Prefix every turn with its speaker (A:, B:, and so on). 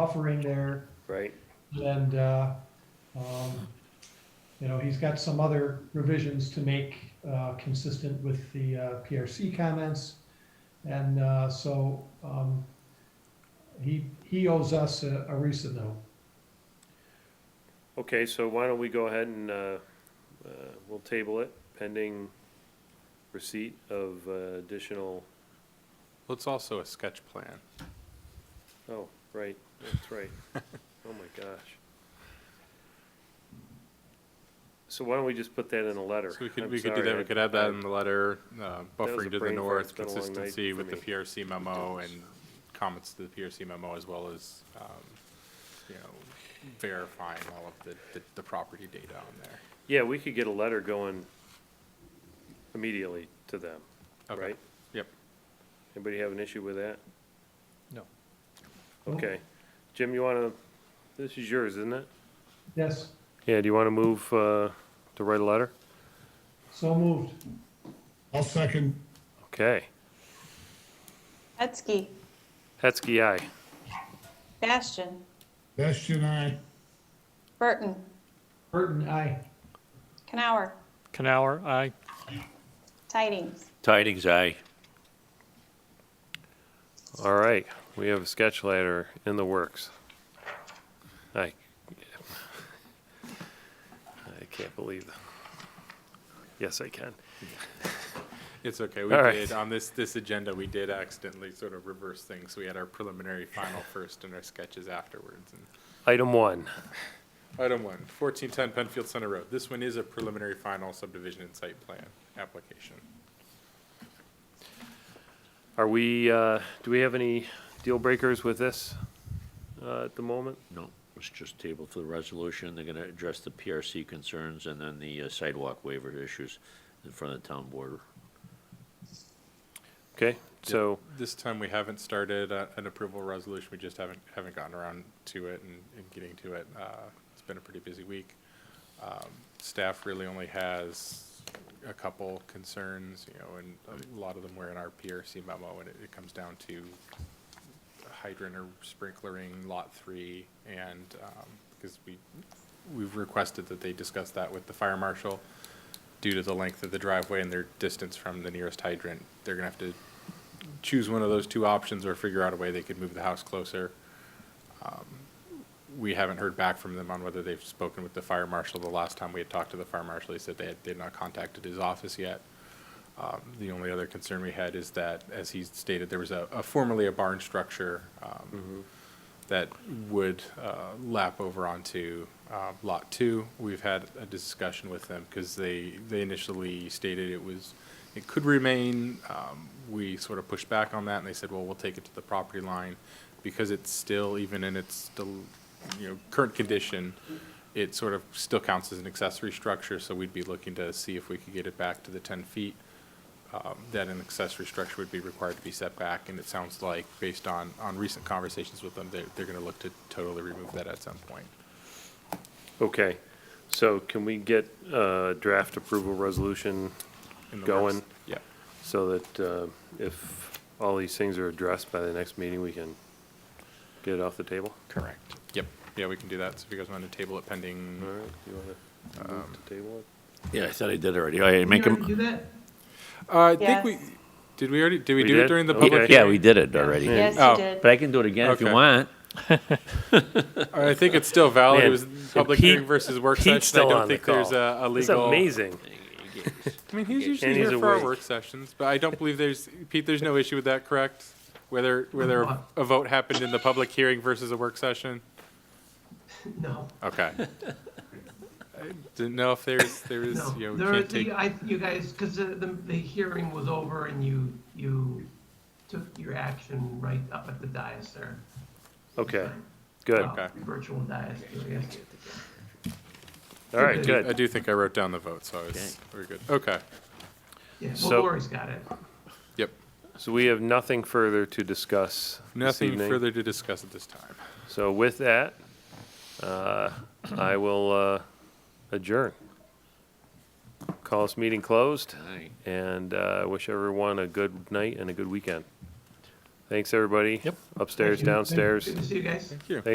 A: buffering there,
B: right?
A: and, uh, um, you know, he's got some other revisions to make, uh, consistent with the, uh, PRC comments. And, uh, so, um, he, he owes us a, a recent note.
B: Okay, so why don't we go ahead and, uh, uh, we'll table it pending receipt of uh, additional,
C: Well, it's also a sketch plan.
B: oh, right, that's right. Oh my gosh. So why don't we just put that in a letter?
C: So we could,
B: I'm
C: we could do
B: sorry,
C: that, we
B: I-
C: could add that
B: I-
C: in the letter, uh,
B: was a
C: buffering to the
B: brain fart.
C: north,
B: It's been a long night
C: consistency
B: for
C: with the
B: me.
C: PRC memo and comments to the PRC memo as well as, um, you know, verifying all of the, the, the property data on there.
B: Yeah, we could get a letter going immediately to them,
C: Okay.
B: right?
C: Yep.
B: Anybody have an issue with that?
C: No.
B: Okay. Jim, you wanna, this is yours, isn't it?
A: Yes,
B: Yeah, do you wanna move, uh, to write a letter?
A: so moved.
D: I'll second.
B: Okay.
E: Hetzke,
B: Hetzke, aye.
E: Bastian,
D: Bastian, aye.
E: Burton,
A: Burton, aye.
E: Canower,
F: Canower, aye.
E: Tidings.
G: Tidings, aye.
B: All right, we have a sketch letter in the works. I, I can't believe. Yes, I can.
C: It's okay, we
B: All right.
C: did, on this, this agenda, we did accidentally sort of reverse things. We had our preliminary final first and our sketches afterwards. And
B: Item one,
C: Item one, fourteen ten Penfield Center Road. This one is a preliminary final subdivision and site plan application.
B: are we, uh, do we have any deal breakers with this uh, at the moment?
G: No, it's just tabled for the resolution. They're gonna address the PRC concerns and then the uh, sidewalk waiver issues in front of the town board.
B: Okay, so,
C: This time, we haven't started a- an approval resolution, we just haven't, haven't gotten around to it and and getting to it. Uh, It's been a pretty busy week. Um, Staff really only has a couple concerns, you know, and a lot of them were in our PRC memo, and it- it comes down to hydrant or sprinklering lot three, and, um, because we, we've requested that they discuss that with the fire marshal. Due to the length of the driveway and their distance from the nearest hydrant, they're gonna have to choose one of those two options or figure out a way they could move the house closer. Um, We haven't heard back from them on whether they've spoken with the fire marshal. The last time we had talked to the fire marshal, he said they had, they had not contacted his office yet. Um, The only other concern we had is that, as he stated, there was a, a formerly a barn structure um, that would uh, lap over onto uh, Lot 2. We've had a discussion with them because they, they initially stated it was, it could remain. Um, We sort of pushed back on that and they said, well, we'll take it to the property line. Because it's still, even in its, del- you know, current condition, it sort of still counts as an accessory structure. So we'd be looking to see if we could get it back to the 10 feet um, that an accessory structure would be required to be set back, and it sounds like, based on, on recent conversations with them, they're, they're gonna look to totally remove that at some point.
B: okay, so can we get a draft approval resolution
C: in the
B: Going.
C: works. Yeah,
B: so that uh, if all these things are addressed by the next meeting, we can get it off the table?
C: correct. Yep, yeah, we can do that, so if you guys want to table it pending,
B: All right, you want to
C: Um,
B: move to table it?
G: Yeah, I thought I did already. I make them.
C: uh, I think
E: Yes.
C: we, did we already, did we
B: We
C: do
B: did?
C: it during the
B: Okay.
C: public?
G: Yeah, we did it already.
E: Yes,
C: Oh.
E: you did.
G: But I can do it again if you
C: Okay.
G: want.
C: I think it's still valid, it
B: Man,
C: was
B: and
C: public
B: Pete-
C: hearing versus work
B: Pete's
C: session, I
B: still
C: don't
B: on the
C: think there's
B: call.
C: a, a
B: It's
C: legal.
B: amazing.
C: I mean, he's usually
B: And he's
C: here for our
B: awake.
C: work sessions, but I don't believe there's, Pete, there's no issue with that, correct? Whether, whether a vote happened in the public hearing versus a work session?
H: No,
C: Okay. I Didn't know if there's, there is,
H: no.
C: you know,
H: There,
C: we can't take,
H: the- I, you guys, because the, the, the hearing was over and you, you took your action right up at the dais there.
B: Okay, good. All
H: Uh,
C: Okay.
H: Virtual dais, I guess.
B: right,
H: uh,
C: I
B: good.
C: do think I wrote down the vote, so I was, we're good. Okay,
H: Yeah,
B: So-
H: well, Lori's got it.
C: yep.
B: So we have nothing further to discuss this
C: Nothing
B: evening.
C: further to discuss at this time.
B: So with that, uh, I will uh, adjourn. Call this meeting closed,
G: Aye.
B: and uh, wish everyone a good night and a good weekend.
I: Thanks, everybody.
H: Yep.
I: Upstairs,
J: Thank you.
I: downstairs.
B: Good to see you guys.
H: Thank you.